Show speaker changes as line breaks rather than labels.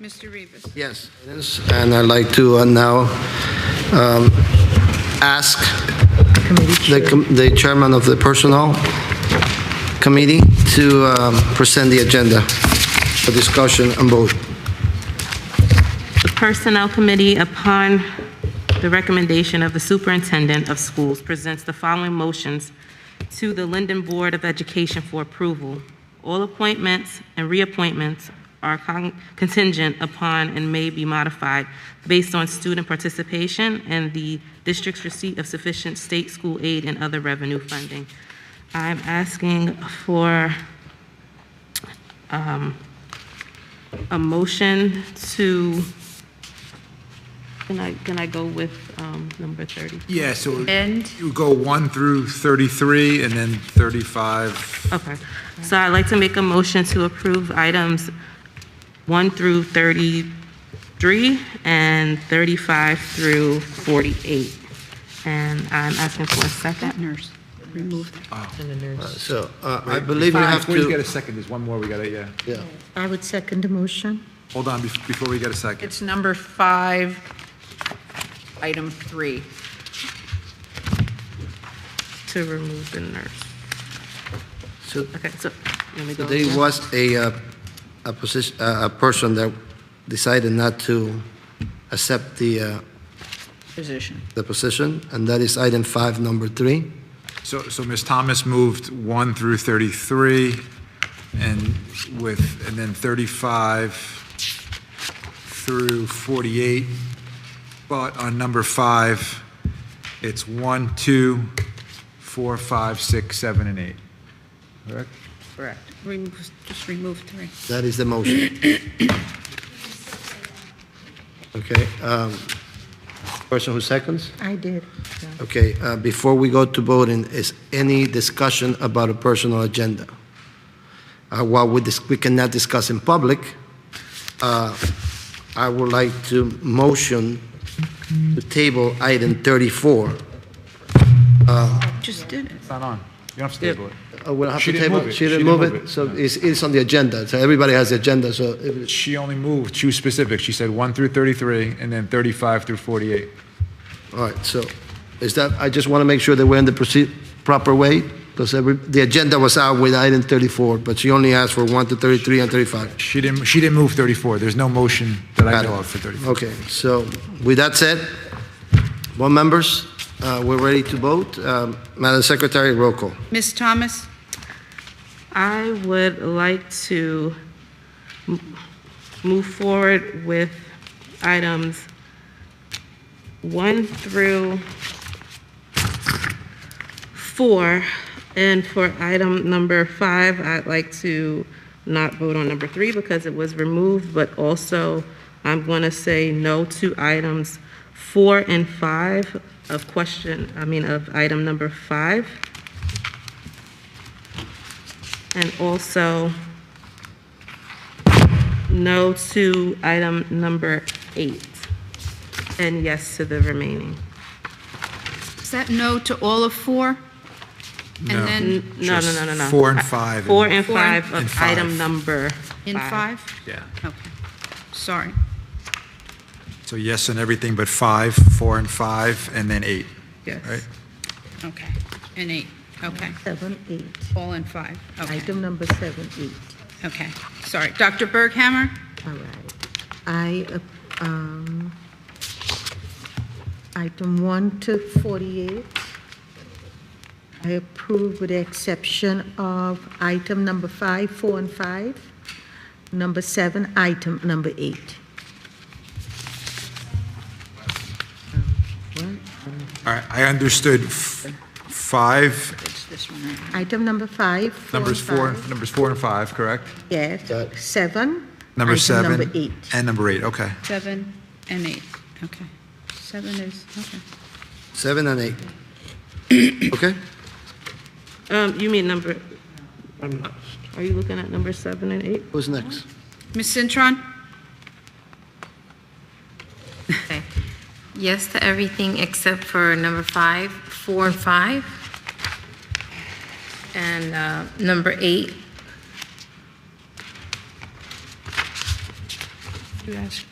Mr. Rivas.
Yes, it is, and I'd like to uh, now um, ask the com- the chairman of the Personnel Committee to um, present the agenda for discussion and vote.
The Personnel Committee, upon the recommendation of the Superintendent of Schools, presents the following motions to the Linden Board of Education for approval. All appointments and reappointments are con- contingent upon and may be modified based on student participation and the district's receipt of sufficient state school aid and other revenue funding. I'm asking for um, a motion to, can I, can I go with um, number 30?
Yeah, so
And?
you go 1 through 33 and then 35.
Okay. So I'd like to make a motion to approve items 1 through 33 and 35 through 48. And I'm asking for a second.
Nurse, remove that.
So uh, I believe you have
Before you get a
to,
second, there's one more we gotta, yeah.
yeah,
I would second the motion.
Hold on, bef- before we get a second.
It's number five, item three.
To remove the nurse.
so
Okay, so let me go.
there
again.
was a uh, a position, a a person that decided not to accept the uh,
Position.
the position, and that is item five, number three.
So, so Ms. Thomas moved 1 through 33 and with, and then 35 through 48. But on number 5, it's 1, 2, 4, 5, 6, 7, and 8. Correct?
Correct.
Remove, just remove three.
That is the motion. Okay, um, person who seconds?
I did.
Okay, uh, before we go to voting, is any discussion about a personal agenda? Uh, While we dis- we cannot discuss in public, uh, I would like to motion to table item 34.
Just did it.
It's not on. You don't have to table it.
Uh, we'll have
She
to
didn't
table-
move it.
She didn't move it, so it's it's on the agenda, so everybody has the agenda, so if it's
She only moved two specific. She said 1 through 33 and then 35 through 48.
All right, so is that, I just want to make sure that we're in the proceed, proper way, because every, the agenda was out with item 34, but she only asked for 1 to 33 and 35.
She didn't, she didn't move 34. There's no motion that I
Got it.
know of for 34.
Okay, so with that said, board members, uh, we're ready to vote. Um, Madam Secretary, roll call.
Ms. Thomas?
I would like to m- move forward with items 1 through 4. And for item number 5, I'd like to not vote on number 3 because it was removed, but also I'm going to say no to items 4 and 5 of question, I mean, of item number 5. And also, no to item number eight, and yes to the remaining.
Is that no to all of four?
No.
And then
No, no,
Just
no, no, no.
four and five.
Four and
Four and-
five of
and five.
item number
in five?
Yeah.
Okay, sorry.
So yes on everything but 5, 4 and 5, and then 8,
Yes.
right?
Okay, and eight, okay.
Seven, eight.
All in five, okay,
Item number seven, eight.
okay, sorry. Dr. Berghammer?
All right. I, uh, um, item one to 48, I approve with the exception of item number five, four and five, number seven, item number eight.
All right, I understood f- 5,
It's this one, right?
Item number five, four and
numbers 4,
five.
numbers 4 and 5, correct?
Yes,
Got it.
seven.
Number
item
7?
Number eight.
And number 8, okay.
Seven and eight, okay. Seven is, okay.
7 and 8. Okay?
Um, you mean number, are you looking at number seven and eight?
Who's next?
Ms. Cintron?
Okay. Yes to everything except for number five, four and five. And uh, number eight.
you asked